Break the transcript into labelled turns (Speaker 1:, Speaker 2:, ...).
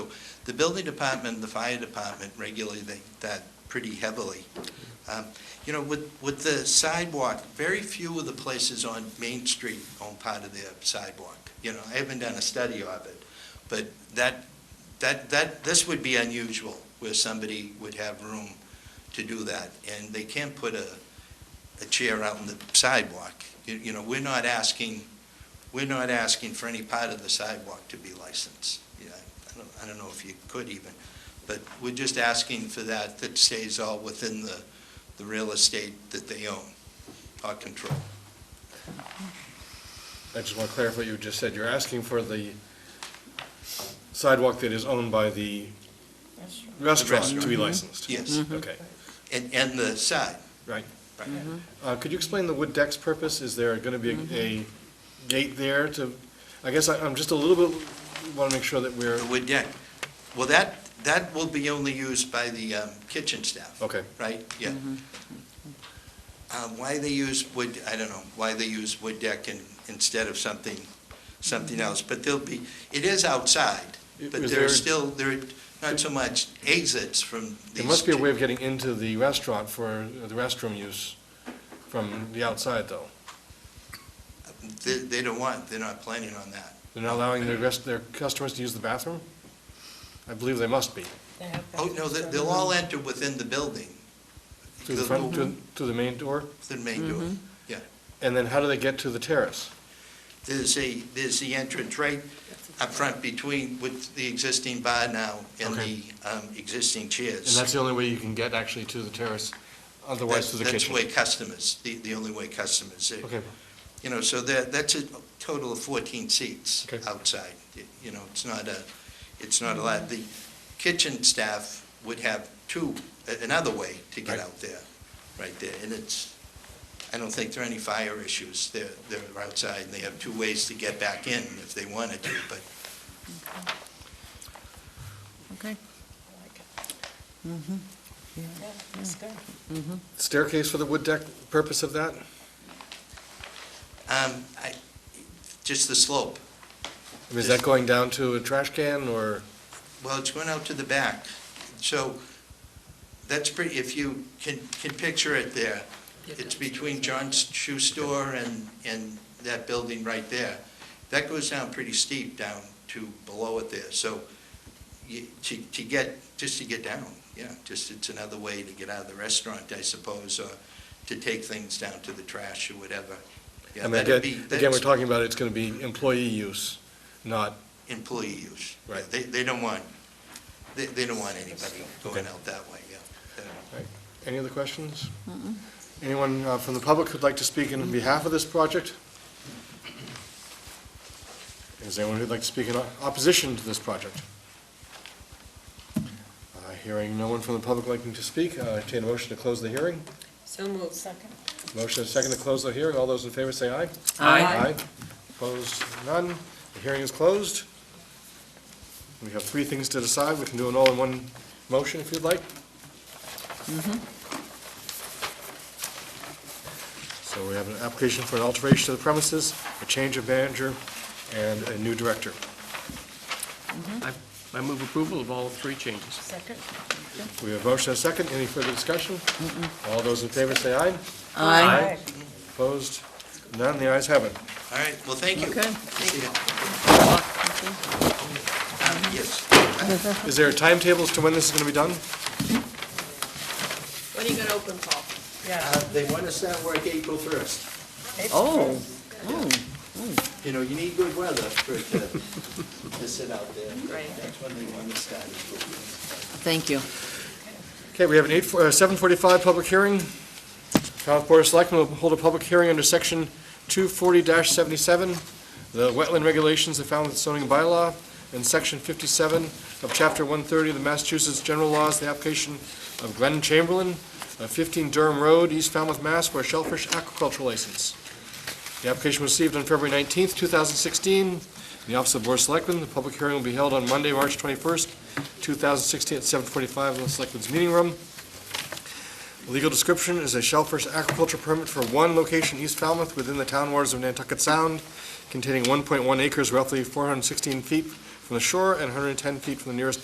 Speaker 1: The building department and the fire department regulate that- that pretty heavily. Um, You know, with, with the sidewalk, very few of the places on Main Street own part of their sidewalk. You know, I haven't done a study of it, but that, that, that, this would be unusual where somebody would have room to do that. And they can't put a, a chair out on the sidewalk. You- You know, we're not asking, we're not asking for any part of the sidewalk to be licensed. Yeah, I don't, I don't know if you could even, but we're just asking for that, that stays all within the, the real estate that they own or control.
Speaker 2: I just want to clarify what you just said. You're asking for the sidewalk that is owned by the restaurant to be licensed?
Speaker 1: Mm-hmm. Yes.
Speaker 2: Okay,
Speaker 1: And, and the side.
Speaker 2: right.
Speaker 1: Right.
Speaker 2: Uh, Could you explain the wood deck's purpose? Is there going to be a- a gate there to, I guess I- I'm just a little bit, want to make sure that we're,
Speaker 1: The wood deck. Well, that, that will be only used by the um, kitchen staff.
Speaker 2: okay.
Speaker 1: Right, yeah. Uh, Why they use wood, I don't know, why they use wood deck in- instead of something, something else, but there'll be, it is outside, but
Speaker 2: Is
Speaker 1: there are
Speaker 2: there-
Speaker 1: still, there are not so much exits from these.
Speaker 2: There must be a
Speaker 1: two-
Speaker 2: way of getting into the restaurant for uh, the restroom use from the outside, though.
Speaker 1: They, they don't want, they're not planning on that.
Speaker 2: They're not allowing their rest, their customers to use the bathroom? I believe they must be,
Speaker 1: Oh, no, they- they'll all enter within the building.
Speaker 2: through the front, to to the main door?
Speaker 1: The main door.
Speaker 2: Mm-hmm. And then how do they get to the terrace?
Speaker 1: There's a, there's the entrance right up front between, with the existing bar now and the
Speaker 2: Okay.
Speaker 1: um, existing
Speaker 2: And
Speaker 1: chairs.
Speaker 2: that's the only way you can get actually to the terrace, otherwise to the
Speaker 1: That's- That's the
Speaker 2: kitchen?
Speaker 1: way customers, the, the only way customers, uh,
Speaker 2: Okay,
Speaker 1: you know, so that, that's a total of 14 seats
Speaker 2: Okay.
Speaker 1: outside. Y- You know, it's not a, it's not a lot. The kitchen staff would have two, a- another way to get
Speaker 2: Right.
Speaker 1: out there, right there. And it's, I don't think there are any fire issues. They're, they're outside, and they have two ways to get back in if they wanted to, but
Speaker 3: Okay.
Speaker 2: staircase for the wood deck, purpose of that?
Speaker 1: Um, I, just the slope.
Speaker 2: I mean, Is that going down to a trash can, or,
Speaker 1: Well, it's going out to the back. So that's pretty, if you can, can picture it there, it's between John's Shoe Store and, and that building right there. That goes down pretty steep down to below it there. So you, to, to get, just to get down, yeah, just it's another way to get out of the restaurant, I suppose, or to take things down to the trash or whatever. Yeah,
Speaker 2: I mean,
Speaker 1: that'd
Speaker 2: again,
Speaker 1: be-
Speaker 2: again, we're
Speaker 1: that's-
Speaker 2: talking about it's going to be employee use, not,
Speaker 1: employee use.
Speaker 2: Right.
Speaker 1: They, they don't want, they, they don't want anybody going
Speaker 2: Okay.
Speaker 1: out that way, yeah.
Speaker 2: any other questions? Anyone uh, from the public who'd like to speak in behalf of this project? Is there anyone who'd like to speak in o- opposition to this project? Uh, Hearing no one from the public liking to speak, uh, I entertain a motion to close the hearing.
Speaker 4: So moved. Second.
Speaker 2: Motion is second to close the hearing. All those in favor say aye.
Speaker 3: Aye.
Speaker 2: Opposed, none. The hearing is closed. We have three things to decide. We can do it all in one motion if you'd like. So we have an application for an alteration to the premises, a change of manager, and a new director.
Speaker 5: I move approval of all three changes.
Speaker 4: Second.
Speaker 2: We have motion and second. Any further discussion? All those in favor say aye.
Speaker 3: Aye.
Speaker 2: Opposed, none. The ayes have it.
Speaker 1: All right, well, thank you.
Speaker 3: Okay.
Speaker 1: Thank you. Um, Yes.
Speaker 2: Is there timetables to when this is going to be done?
Speaker 4: When are you gonna open, Paul?
Speaker 1: Uh, They want to start work April first.
Speaker 3: Oh,
Speaker 1: You know, you need good weather for it to, to sit out there.
Speaker 4: Right.
Speaker 1: That's when they want to start. it.
Speaker 3: thank you.
Speaker 2: Okay, we have an eight, uh, seven forty-five public hearing. Town Board of Selectmen will hold a public hearing under section two forty seventy-seven, the wetland regulations of Falmouth zoning bylaw, and section fifty-seven of chapter one thirty of the Massachusetts General Laws, the application of Glenn Chamberlain, uh, fifteen Durham Road, East Falmouth, Mass, for a shellfish aquaculture license. The application was received on February nineteenth, two thousand sixteen, in the Office of Board of Selectmen. The public hearing will be held on Monday, March twenty-first, 2016 at 7:45 in the Selectmen's Meeting Room. Legal description is a shellfish aquaculture permit for one location, East Falmouth, within the town waters of Nantucket Sound, containing 1.1 acres, roughly 416 feet from the shore and 110 feet from the nearest